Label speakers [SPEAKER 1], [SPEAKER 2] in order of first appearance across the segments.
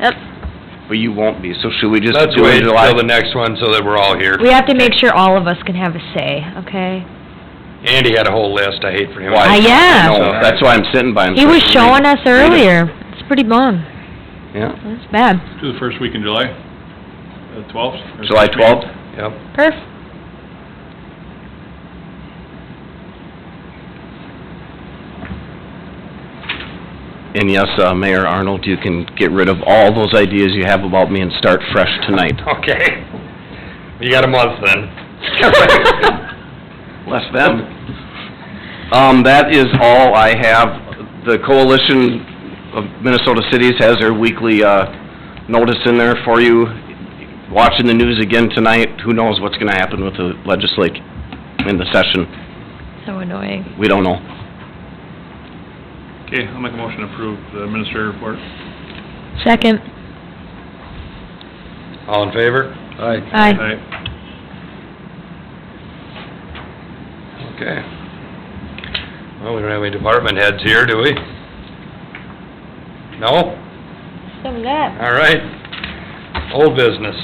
[SPEAKER 1] Yep.
[SPEAKER 2] But you won't be, so should we just
[SPEAKER 3] Let's
[SPEAKER 2] do it
[SPEAKER 3] wait
[SPEAKER 2] in July?
[SPEAKER 3] until the next one so that we're all here.
[SPEAKER 4] We have to make sure all of us can have a say, okay?
[SPEAKER 3] Andy had a whole list, I hate for him.
[SPEAKER 2] Why?
[SPEAKER 4] Ah, yeah.
[SPEAKER 2] No, that's why I'm sitting by him.
[SPEAKER 4] He was
[SPEAKER 2] so I
[SPEAKER 4] showing
[SPEAKER 2] can read
[SPEAKER 4] us
[SPEAKER 2] it.
[SPEAKER 4] earlier. It's pretty bum.
[SPEAKER 2] Yeah,
[SPEAKER 4] That's bad.
[SPEAKER 5] Do the first week in July, the Uh, twelfth?
[SPEAKER 2] July twelfth?
[SPEAKER 3] Yep.
[SPEAKER 4] Perf.
[SPEAKER 2] And yes, uh, Mayor Arnold, you can get rid of all those ideas you have about me and start fresh tonight.
[SPEAKER 3] Okay. You got a month then.
[SPEAKER 4] That's
[SPEAKER 2] Bless them. Um, that is all I have. The Coalition of Minnesota Cities has their weekly, uh, notice in there for you. Watching the news again tonight, who knows what's gonna happen with the legislature in the session?
[SPEAKER 4] so annoying.
[SPEAKER 2] We don't know.
[SPEAKER 5] Okay, I'll make a motion to approve the administrative report.
[SPEAKER 4] Second.
[SPEAKER 3] All in favor?
[SPEAKER 4] Aye.
[SPEAKER 5] Aye.
[SPEAKER 3] Okay. Well, we don't have any department heads here, do we? No?
[SPEAKER 4] Some that.
[SPEAKER 3] All right. Old business.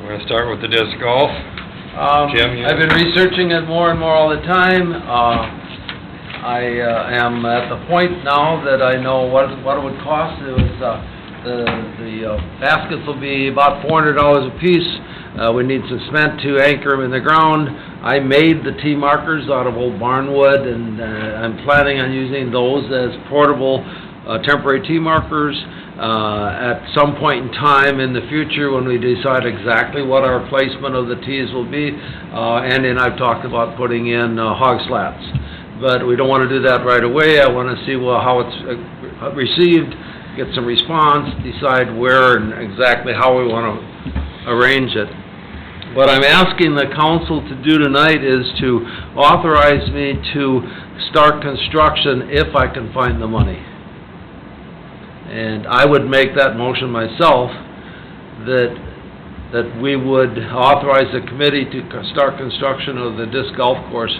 [SPEAKER 3] We're gonna start with the disc golf.
[SPEAKER 6] Um,
[SPEAKER 3] Jim, you-
[SPEAKER 6] I've been researching it more and more all the time. Uh, I uh, am at the point now that I know what, what it would cost. It was, uh, the, the uh, baskets will be about four hundred dollars apiece. Uh, we need some cement to anchor them in the ground. I made the tee markers out of old barnwood and, uh, I'm planning on using those as portable, uh, temporary tee markers. Uh, at some point in time in the future, when we decide exactly what our placement of the tees will be, uh, Andy and I've talked about putting in uh, hog slats. But we don't want to do that right away. I want to see, well, how it's uh, received, get some response, decide where and exactly how we want to arrange it. What I'm asking the council to do tonight is to authorize me to start construction if I can find the money. And I would make that motion myself, that, that we would authorize the committee to co- start construction of the disc golf course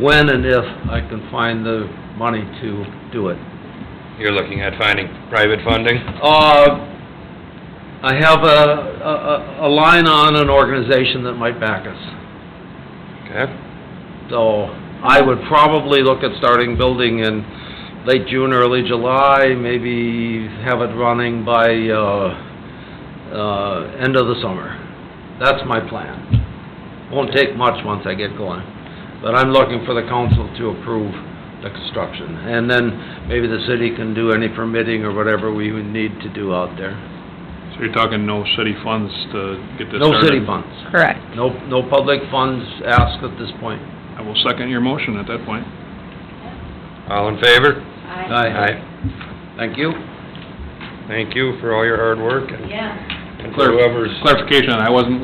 [SPEAKER 6] when and if I can find the money to do it.
[SPEAKER 3] You're looking at finding private funding?
[SPEAKER 6] Uh, I have a, a, a line on an organization that might back us.
[SPEAKER 3] Okay.
[SPEAKER 6] So I would probably look at starting building in late June, early July, maybe have it running by, uh, uh, end of the summer. That's my plan. Won't take much once I get going, but I'm looking for the council to approve the construction. And then maybe the city can do any permitting or whatever we would need to do out there.
[SPEAKER 5] So you're talking no city funds to get this started?
[SPEAKER 6] No city funds,
[SPEAKER 4] Correct.
[SPEAKER 6] no, no public funds asked at this point.
[SPEAKER 5] I will second your motion at that point.
[SPEAKER 3] All in favor?
[SPEAKER 6] Thank you.
[SPEAKER 3] Thank you for all your hard work and
[SPEAKER 1] Yeah.
[SPEAKER 3] and for
[SPEAKER 5] Clar-
[SPEAKER 3] whoever's,
[SPEAKER 5] Clarification, I wasn't,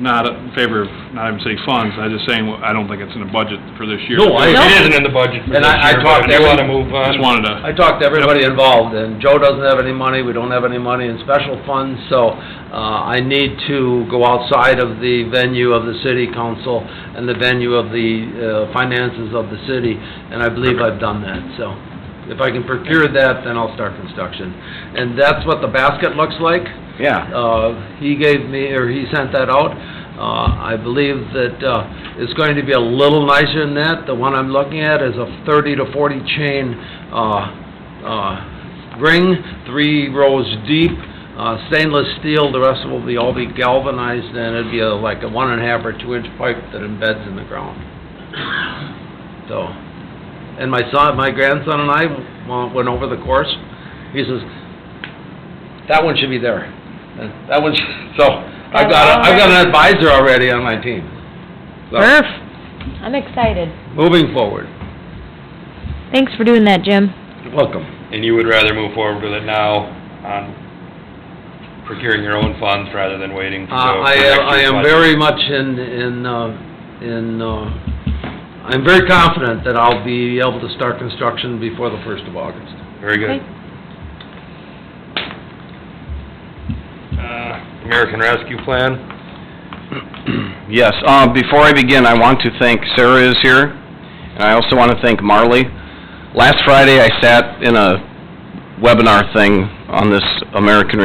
[SPEAKER 5] not in favor of not having city funds, I was just saying, I don't think it's in the budget for this year.
[SPEAKER 6] No, I-
[SPEAKER 3] it isn't in the budget for
[SPEAKER 6] And
[SPEAKER 3] this
[SPEAKER 6] I- I
[SPEAKER 3] year,
[SPEAKER 6] talked
[SPEAKER 3] but you
[SPEAKER 6] every-
[SPEAKER 3] wanna move on?
[SPEAKER 5] Just wanted to.
[SPEAKER 6] I talked to everybody involved, and Joe doesn't have any money, we don't have any money in special funds, so uh, I need to go outside of the venue of the city council and the venue of the uh, finances of the city, and I believe I've done that, so. If I can procure that, then I'll start construction. And that's what the basket looks like.
[SPEAKER 2] Yeah.
[SPEAKER 6] Uh, He gave me, or he sent that out. Uh, I believe that uh, it's going to be a little nicer than that. The one I'm looking at is a 30 to 40 chain uh, uh, ring, three rows deep, uh, stainless steel. The rest will be, all be galvanized, and it'd be a- like a one and a half or two inch pipe that embeds in the ground. So, and my son, my grandson and I wa- went over the course. He says, "That one should be there." And That one, should-" so I've got, a- I've got an advisor already on my team. So,
[SPEAKER 4] Perf. I'm excited.
[SPEAKER 6] moving forward.
[SPEAKER 4] Thanks for doing that, Jim.
[SPEAKER 6] You're Welcome.
[SPEAKER 3] and you would rather move forward with it now on procuring your own funds rather than waiting
[SPEAKER 6] Uh,
[SPEAKER 3] for the
[SPEAKER 6] I,
[SPEAKER 3] next
[SPEAKER 6] am- I
[SPEAKER 3] year's
[SPEAKER 6] am
[SPEAKER 3] budget?
[SPEAKER 6] very much in, in, uh, in, uh, I'm very confident that I'll be able to start construction before the first of August.
[SPEAKER 3] Very good.
[SPEAKER 4] Okay.
[SPEAKER 3] Uh, American Rescue Plan?
[SPEAKER 2] Yes, uh, before I begin, I want to thank Sarah is here, and I also want to thank Marley. Last Friday, I sat in a webinar thing on this American